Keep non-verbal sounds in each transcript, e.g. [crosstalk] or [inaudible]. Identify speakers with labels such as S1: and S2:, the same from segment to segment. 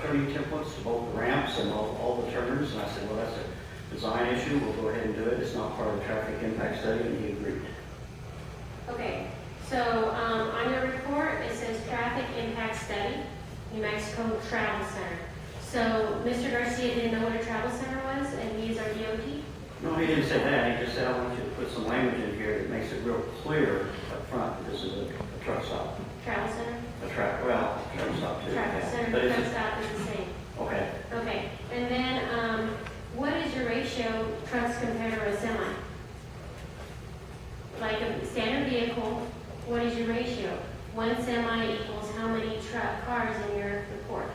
S1: trimming templates to both the ramps and all, all the turners, and I said, well, that's a design issue, we'll go ahead and do it, it's not part of the traffic impact study, and he agreed.
S2: Okay, so, um, on your report, it says traffic impact study, New Mexico Travel Center. So Mr. Garcia didn't know what a travel center was, and he is our DOT?
S1: No, he didn't say that, he just said, I want you to put some language in here that makes it real clear up front, that this is a a truck stop,
S2: Travel center?
S1: a track, well, a truck stop too.
S2: Travel
S1: yeah.
S2: center,
S1: But
S2: truck
S1: it's,
S2: stop is the same.
S1: okay,
S2: Okay, and then, um, what is your ratio trucks compared to a semi? Like a standard vehicle, what is your ratio? One semi equals how many truck cars in your report?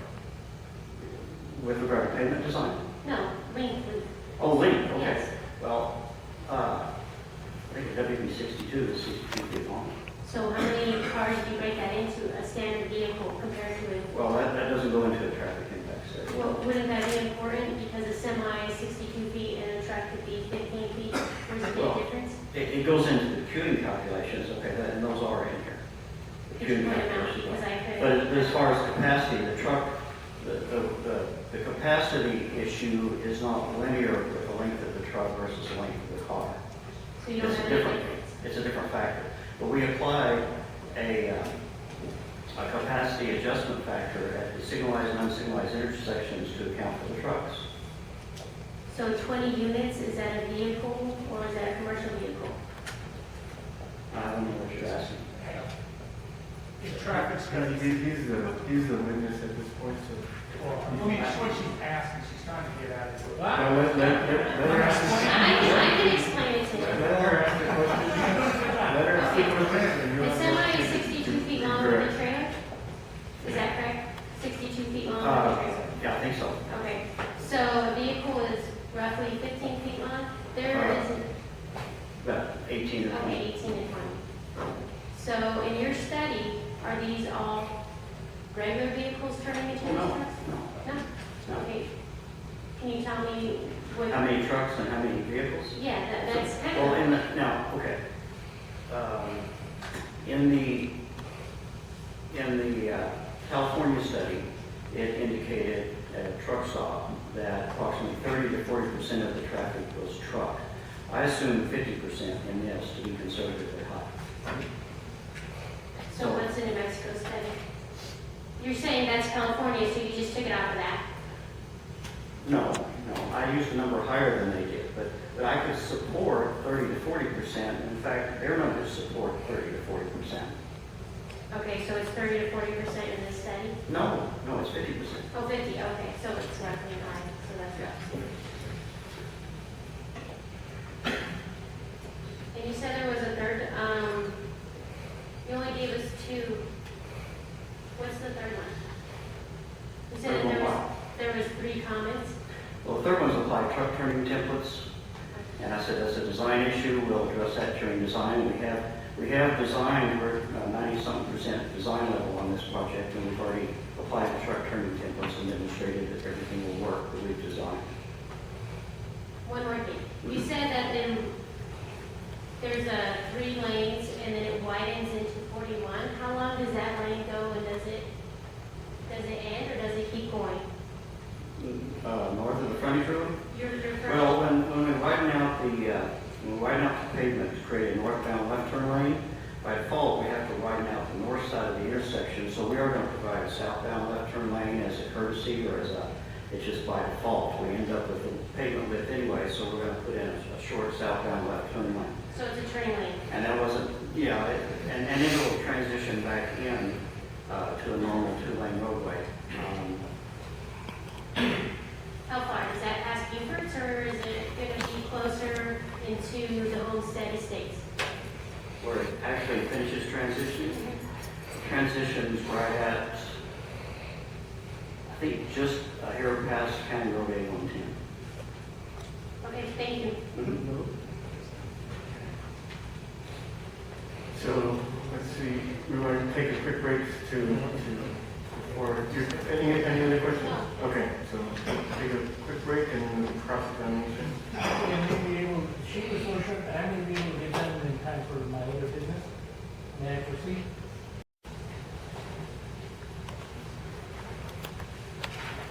S1: with regard to pavement design.
S2: No, length, length.
S1: Oh, length, okay.
S2: yes.
S1: Well, uh, I think the WB sixty-two is sixty-two feet long.
S2: So how many cars do you break that into a standard vehicle compared to a,
S1: Well, that, that doesn't go into a traffic impact study.
S2: well, wouldn't that be important? Because a semi is sixty-two feet and a truck could be fifteen feet, there's a
S1: Well,
S2: big difference?
S1: It, it goes into the queuing calculations, okay, that- and those are in here. The
S2: Could you
S1: queuing
S2: point them out,
S1: calculations are.
S2: because I could.
S1: But as far as capacity, the truck, the, the, the- the capacity issue is not linear with the length of the truck versus the length of the car.
S2: So you don't
S1: It's
S2: have any
S1: different.
S2: difference?
S1: It's a different factor. But we apply a, uh, a capacity adjustment factor at the signalized and unsignalized intersections to account for the trucks.
S2: So 20 units, is that a vehicle or is that a commercial vehicle?
S1: I don't know what you're asking.
S3: If traffic's
S4: No,
S3: gonna
S4: He's,
S3: be,
S4: he's the, he's the witness at this point,
S2: [laughs]
S4: so.
S3: well, I mean, it's what she's asking, she's trying to get at it.
S4: Now, let, let, let let her ask,
S2: I I can explain it to
S4: let
S2: you.
S4: her ask the question. Let her ask the question. and you'll-
S2: The semi is 62 feet long with a trailer? Is that correct? 62 feet long with a
S1: Uh,
S2: trailer?
S1: yeah, I think so.
S2: Okay, so a vehicle is roughly 15 feet long, there
S1: Uh,
S2: is,
S1: About 18 to 20.
S2: okay, 18 and 20. So in your study, are these all regular vehicles turning into
S1: No,
S2: trucks? No.
S1: No.
S2: Okay. Can you tell me what?
S1: How many trucks and how many vehicles?
S2: Yeah, that, that's kind of.
S1: Well, in the, now, okay. Um, In the, in the uh, California study, it indicated at a truck stop that approximately 30 to 40 percent of the traffic was truck. I assume 50 percent in this to be conservatively high.
S2: So what's in New Mexico study? You're saying that's California, so you just took it out of that?
S1: No, no, I used a number higher than they did, but, but I could support 30 to 40 percent. In fact, their numbers support 30 to 40 percent.
S2: Okay, so it's thirty to forty percent in this study?
S1: No, no, it's 50 percent.
S2: Oh, fifty, okay, so it's roughly nine, so that's
S1: Yeah.
S2: And you said there was a third, um, you only gave us two. What's the third one? You said
S1: Third
S2: that
S1: one
S2: there was,
S1: what?
S2: there was three comments?
S1: Well, the third one's applied truck turning templates, and I said that's a design issue, we'll address that during design. We have, we have designed, we're uh, ninety-something percent design level on this project, and we've already applied the truck turning templates and demonstrated that everything will work that we've designed.
S2: One more thing. You said that then there's a three lanes and then it widens into forty-one. How long does that lane go and does it, does it end or does it keep going?
S1: Uh, north of the frontage road?
S2: You're, you're
S1: Well, when, when we widen out the, uh, when we widen out the pavement to create a northbound left turn lane, by default, we have to widen out the north side of the intersection, so we are gonna provide a southbound left turn lane as a courtesy or as a, it's just by default, we end up with the pavement width anyway, so we're gonna put in a a short southbound left turn lane.
S2: So it's a turning lane.
S1: And that wasn't, yeah, it- and, and it will transition back in, uh, to a normal two-lane roadway. Um,
S2: How far? Is that past Beaufort's or is it gonna be closer into the Homestead Estates?
S1: where it actually finishes transitioning,
S2: Então,
S1: transitions right at, I think, just a hair past County Road A one
S2: Okay, thank you.
S1: ten.
S4: So, let's see, we want to take a quick break to, to, or, do, any, any other questions?